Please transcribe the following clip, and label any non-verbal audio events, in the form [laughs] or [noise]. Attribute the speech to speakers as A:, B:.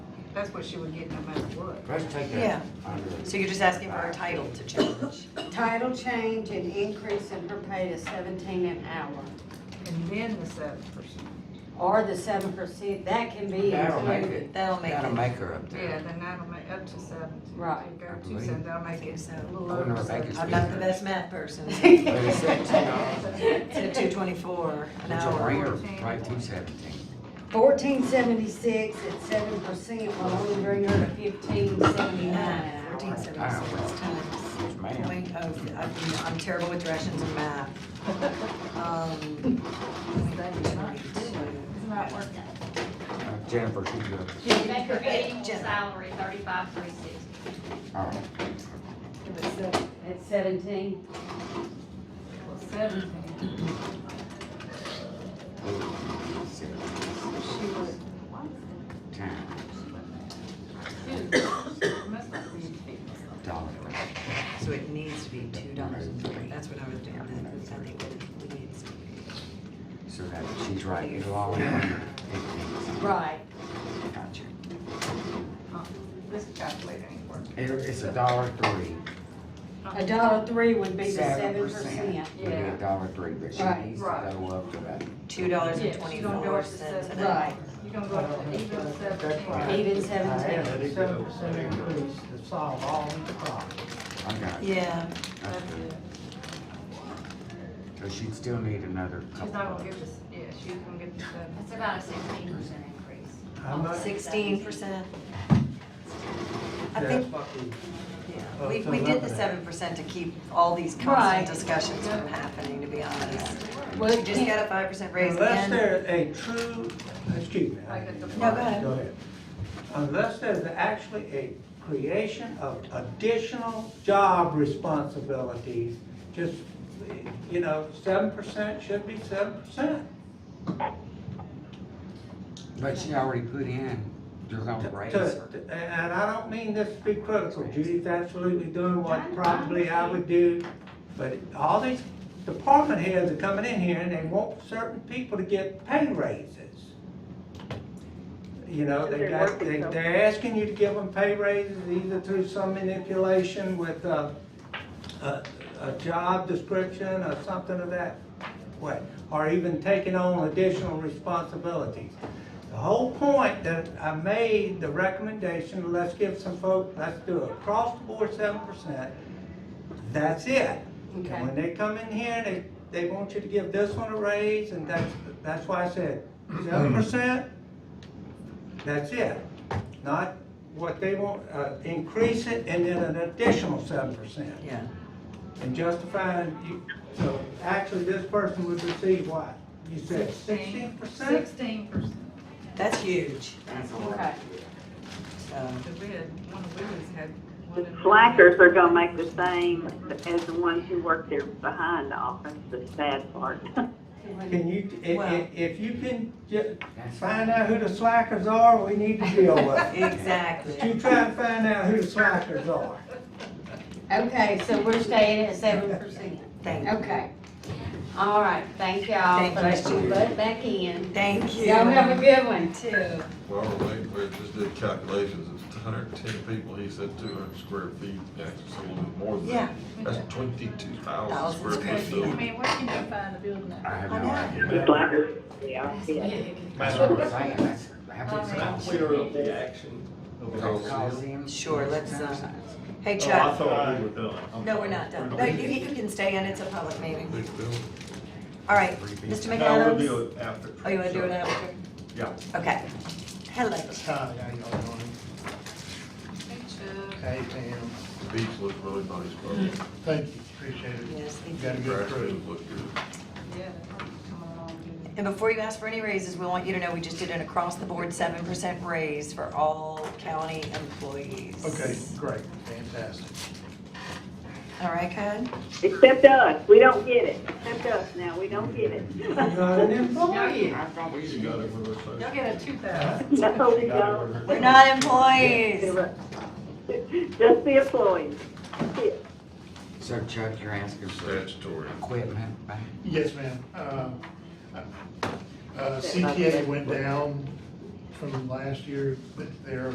A: That's what she would get no matter what.
B: Let's take
C: Yeah.
B: that. under-
D: So you're just asking for her title to change?
E: Title change and increase in her pay to seventeen an hour,
A: And then the seven percent.
E: or the seven percent, that can be
B: That'll make
E: included.
B: it,
D: That'll make
B: that'll
D: it,
B: make her up
A: Yeah,
B: there.
A: then that'll make up to seven.
E: Right.
A: Go to seven, that'll make it a little
B: I wonder
A: over
B: if I
A: seven.
B: could
D: I'm not the best math person,
B: But
D: [laughs]
B: it's seventeen dollars,
D: to two twenty-four an
B: which will bring
D: hour.
B: her right to seventeen.
E: [laughs] Fourteen seventy-six at seven percent will only bring her to fifteen seventy-nine an hour.
D: Fourteen seventy-six times
B: Yes, ma'am.
D: point oh, I- you know, I'm terrible with directions and math. Um,
A: It's not working.
B: Uh, Jennifer, she's good.
F: Make her annual salary thirty-five, three sixty.
B: All right.
E: At seventeen,
A: Well, seventeen, she would,
B: Times
A: it must not be fixed.
B: dollar.
D: So it needs to be two dollars and three, that's what I was doing, I think it needs to be.
B: So that she's right, you all under fifteen.
E: right.
D: Gotcha.
A: Uh, This calculator ain't working.
B: It- It's a dollar three.
E: A dollar three would be the seven
B: 7%.
E: percent.
B: Would be
A: Yeah.
B: a dollar three, but she
E: Right.
B: needs to
A: Right.
B: go up to that.
D: Two dollars and
A: Yes, you don't go
D: twenty-four
A: up to
D: cents
A: seven.
D: an hour.
E: Right.
A: You gonna go up to even seventeen?
E: Even
G: had
E: seventeen.
G: an seven percent increase to solve all these problems.
B: I got it.
D: Yeah,
B: That's
A: That's
B: good.
A: it.
B: So she'd still need another
A: She's
B: couple
A: not gonna
B: of.
A: get this, yeah, she's gonna get the seven.
F: That's about a sixteen percent increase.
G: How much?
D: sixteen percent. I
G: That's
D: think,
G: what we-
D: yeah, we, we did the seven percent to keep all these
E: Right.
D: constant discussions from happening, to be honest.
E: Well,
D: You just got a five percent raise
G: Unless
D: again.
G: there's a true, excuse me. I
A: Like
G: didn't
A: at the-
G: mean to-
D: No, go ahead.
G: Unless there's actually a creation of additional job responsibilities, just, you know, seven percent should be seven percent.
B: But she already put in, you're gonna raise her.
G: And and I don't mean this to be critical, Judy's absolutely doing what probably I would do, but all these department heads are coming in here and they want certain people to get pay raises. You know, they got, they, they're asking you to give them pay raises either through some manipulation with, uh, a, a job description or something of that way, or even taking on additional responsibilities. The whole point that I made, the recommendation, let's give some folk, let's do across the board seven percent, that's it. And
E: Okay.
G: when they come in here, they, they want you to give this one a raise, and that's, that's why I said seven percent, that's it. Not what they want, uh, increase it and then an additional seven percent
D: Yeah,
G: and justifying, you, so actually this person would receive what? You said sixteen percent?
A: Sixteen percent.
D: that's huge,
E: Okay.
D: so.
A: Cause we had, one of Willie's had one. in-
H: Slackers are gonna make the same as the ones who work there behind the office, the sad part.
G: Can you,
D: Well-
G: if, if you can ju-
B: That's
G: find out who the slackers are, we need to
D: [laughs]
G: deal with it. But
D: Exactly.
G: you try and find out who the slackers are.
E: Okay, so we're staying at seven percent.
D: Thank you.
E: Okay. All right, thank y'all
D: Thank
E: for letting me butt back in.
D: Thank you.
E: Y'all have a good one.
D: Too.
I: Well, we, we just did calculations, it's hundred and ten people, he said two hundred square feet, yeah, it's a little bit more than
D: Yeah.
I: that. That's twenty-two thousand
D: Thousand
I: square
D: square
I: feet,
D: feet.
I: so.
J: I mean, where can you find a building
B: I
J: that?
B: have
D: I
B: no
D: know.
B: idea.
H: The slackers, yeah, yeah.
B: That's what I'm saying, that's, that's what I'm saying.
K: Clear up the action.
B: Coliseum.
D: Sure, let's, uh, Hey
K: Oh, I
D: Chuck,
K: thought we were done. I'm
D: no, we're
K: sorry.
D: not done. No, you, you can stay in, it's a public meeting.
I: Big building.
D: All right, Mr.
K: No, we'll
D: McAdams?
K: do it after.
D: Oh, you wanna do it after?
K: Yeah.
D: Okay. Hello.
K: Hi, how y'all doing?
A: Hey,
F: uh,
A: Chuck.
J: Hey, Pam.
I: The beach looked really nice, but
J: Thank you, appreciate it.
D: Yes, thank
J: You got
D: you.
J: a good
I: the grass
J: crew.
I: field looked good.
A: Yeah, come along.
D: And before you ask for any raises, we want you to know we just did an across-the-board seven percent raise for all county employees.
J: Okay, great, fantastic.
D: All right, Cud?
H: Except us, we don't get it, except us now, we don't get it. [laughs]
G: Not an
D: Oh,
G: employee.
B: I thought we
I: You got it for the
A: Y'all
I: same.
A: get a two thousand.
H: No, we
K: Got it.
H: don't.
D: We're not employees.
H: Just the employees. That's it.
B: So Chuck, you're asking for
I: Statutory.
B: equipment back?
J: Yes, ma'am. Um, uh, CTA went down from last year, but they're